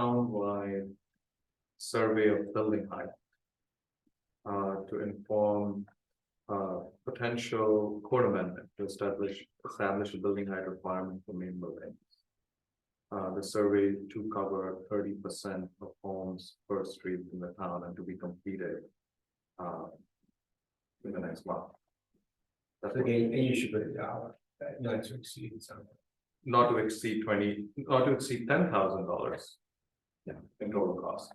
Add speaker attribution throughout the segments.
Speaker 1: townwide survey of building height. Uh, to inform, uh, potential code amendment to establish, establish a building height requirement for main buildings. Uh, the survey to cover thirty percent of homes per street in the town and to be completed. Uh. In the next month. That's what-
Speaker 2: Again, and you should put a dollar, uh, not to exceed something.
Speaker 1: not to exceed twenty, not to exceed ten thousand dollars. Yeah, in total cost.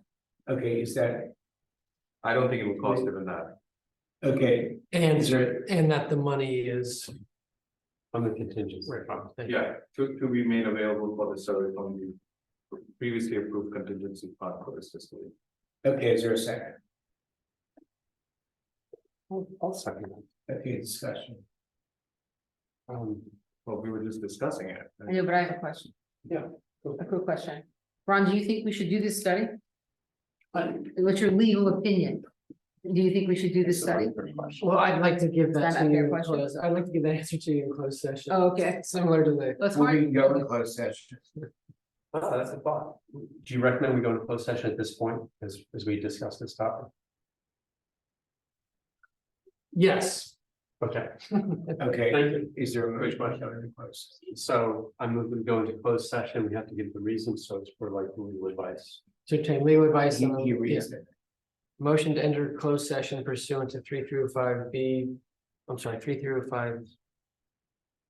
Speaker 2: Okay, is that,
Speaker 1: I don't think it will cost even that.
Speaker 2: okay,
Speaker 3: And, and that the money is.
Speaker 4: On the contingency.
Speaker 3: Right.
Speaker 1: Yeah, to, to be made available for the survey from the previously approved contingency fund for this fiscal year.
Speaker 2: okay, is there a second?
Speaker 4: I'll I'll second that.
Speaker 2: Okay, discussion.
Speaker 4: Um,
Speaker 1: Well, we were just discussing it.
Speaker 5: I know, but I have a question.
Speaker 4: Yeah.
Speaker 5: A quick question. Ron, do you think we should do this study?
Speaker 4: I-
Speaker 5: What's your legal opinion? Do you think we should do this study?
Speaker 3: Well, I'd like to give that
Speaker 5: Is that
Speaker 3: to
Speaker 5: a fair
Speaker 3: you, in
Speaker 5: question?
Speaker 3: close- I'd like to give that answer to you in closed session.
Speaker 5: Oh, Okay,
Speaker 3: Similar to the,
Speaker 5: that's
Speaker 2: We
Speaker 5: hard.
Speaker 2: can go in closed session.
Speaker 4: oh, that's a thought. Do you recommend we go into closed session at this point as, as we discuss this topic?
Speaker 3: yes,
Speaker 4: Okay,
Speaker 2: Okay,
Speaker 4: thank you.
Speaker 2: is there a
Speaker 4: Great
Speaker 2: motion
Speaker 4: question.
Speaker 2: to go in closed?
Speaker 4: So I'm going to go into closed session. We have to give the reasons. So it's for like legal advice.
Speaker 3: to obtain legal advice.
Speaker 2: session?
Speaker 3: on-
Speaker 2: He, he
Speaker 3: yeah.
Speaker 2: reads it.
Speaker 3: Motion to enter closed session pursuant to three through five B, I'm sorry, three through five.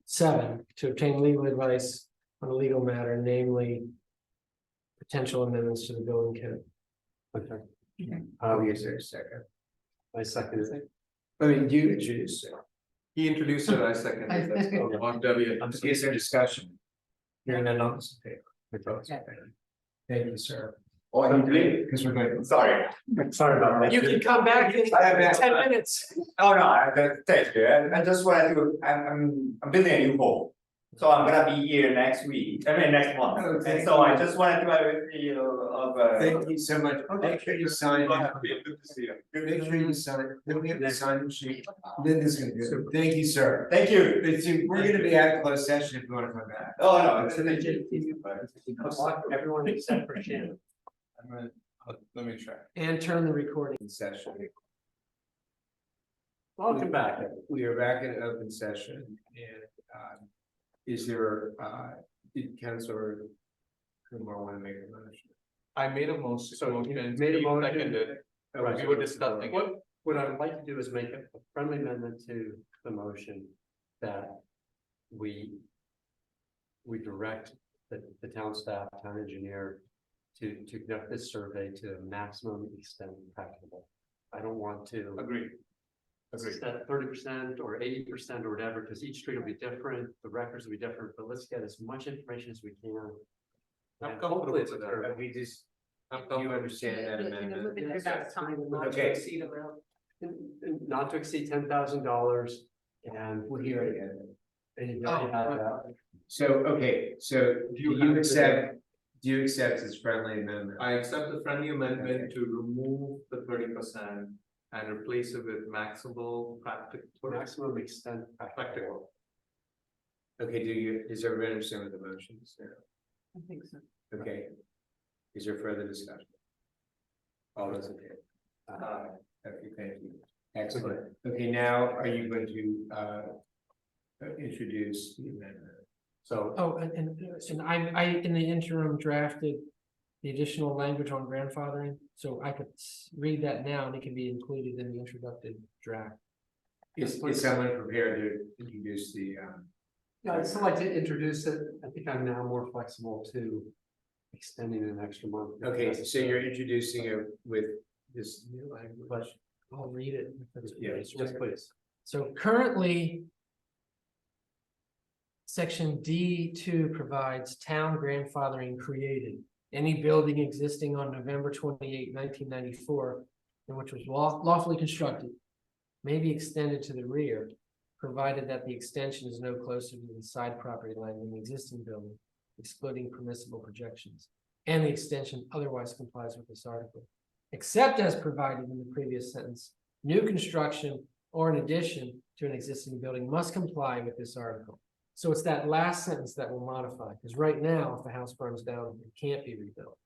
Speaker 3: Seven, to obtain legal advice on a legal matter, namely. Potential amendments to the building code.
Speaker 4: Okay.
Speaker 5: Okay.
Speaker 2: Oh,
Speaker 4: Um,
Speaker 2: is there a second?
Speaker 4: I second it.
Speaker 2: I mean, you introduce it.
Speaker 1: He introduced it, I seconded it. On W.
Speaker 4: I'm sorry.
Speaker 2: Is there discussion? Hearing none, all those in favor?
Speaker 5: Okay.
Speaker 2: Thank you, sir. Oh, I need to leave because we're going.
Speaker 6: Sorry.
Speaker 4: Sorry about that.
Speaker 3: You can come back in
Speaker 6: I have that.
Speaker 3: ten minutes.
Speaker 6: Oh, no, I, that- thank you. I, I just wanted to, I'm, I'm, I'm building a new home. So I'm gonna be here next week, I mean, next
Speaker 2: Oh,
Speaker 6: month.
Speaker 2: thank
Speaker 6: And so I
Speaker 2: you.
Speaker 6: just wanted to, have a you know, of, uh,
Speaker 2: Thank you so much. Make sure you sign. Make sure you sign. Then we have the sign sheet. Then this is gonna be, good. thank you, sir.
Speaker 6: thank you.
Speaker 2: It's, we're gonna be at closed session if you wanna come back.
Speaker 6: Oh, no, it's an
Speaker 4: Everyone except for Shannon.
Speaker 2: I'm gonna, uh, let me try.
Speaker 3: And turn the recording.
Speaker 2: In session.
Speaker 4: Welcome back.
Speaker 2: We are back in open session and, um, is there, uh, did Counselor Kumar wanna make a motion?
Speaker 1: I made a motion, so
Speaker 4: you
Speaker 1: motion,
Speaker 4: made a
Speaker 1: he
Speaker 4: motion.
Speaker 1: seconded,
Speaker 2: Oh,
Speaker 4: Right.
Speaker 1: we were discussing it.
Speaker 4: What, what I'd like to do is make a a friendly amendment to the motion that we. We direct the, the town staff, town engineer to, to conduct this survey to the maximum extent practicable. I don't want to.
Speaker 1: Agreed.
Speaker 4: Is that thirty percent or eighty percent or whatever, because each street will be different, the records will be different, but let's get as much information as we can.
Speaker 1: I'm
Speaker 4: And
Speaker 1: comfortable
Speaker 4: hopefully it's
Speaker 1: with
Speaker 4: a
Speaker 1: that.
Speaker 4: fair-
Speaker 2: we just,
Speaker 1: I'm comfortable.
Speaker 2: Okay.
Speaker 4: Not to exceed ten thousand dollars and.
Speaker 2: we'll hear it again.
Speaker 3: Oh,
Speaker 4: And I have that.
Speaker 2: So, okay, so do
Speaker 1: You have
Speaker 2: you
Speaker 1: to-
Speaker 2: accept, do you accept his friendly amendment?
Speaker 1: I accept the friendly amendment to remove the thirty percent and replace it with maximal practical.
Speaker 4: maximum extent.
Speaker 1: Practical.
Speaker 2: Okay, do you, does everybody understand what the motion is now?
Speaker 5: I think so.
Speaker 2: Okay. Is there further discussion? All those in favor?
Speaker 4: Uh,
Speaker 2: Okay, thank you. Excellent. Okay, now are you going to uh uh, introduce the amendment?
Speaker 4: So,
Speaker 3: Oh, and, and, and I, I, in the interim drafted the additional language on grandfathering, so I could s- read that now and it can be included in the introductory draft.
Speaker 2: Is is someone prepared to introduce the um?
Speaker 4: yeah, I'd still like to introduce it. I think I'm now more flexible to extending an extra month. if
Speaker 2: Okay, so
Speaker 4: necessary.
Speaker 2: you're introducing it with this new language?
Speaker 3: I'll read it. if that's what
Speaker 2: Yeah,
Speaker 3: it's
Speaker 4: Yes,
Speaker 3: right.
Speaker 4: please.
Speaker 3: So currently. Section D two provides town grandfathering created. Any building existing on November 28, 1994, and which was law- lawfully constructed. May be extended to the rear, provided that the extension is no closer to the side property line than the existing building. Excluding permissible projections, and the extension otherwise complies with this article. Except as provided in the previous sentence, new construction or in addition to an existing building must comply with this article. So it's that last sentence that will modify, because right now, if the house burns down, it can't be rebuilt.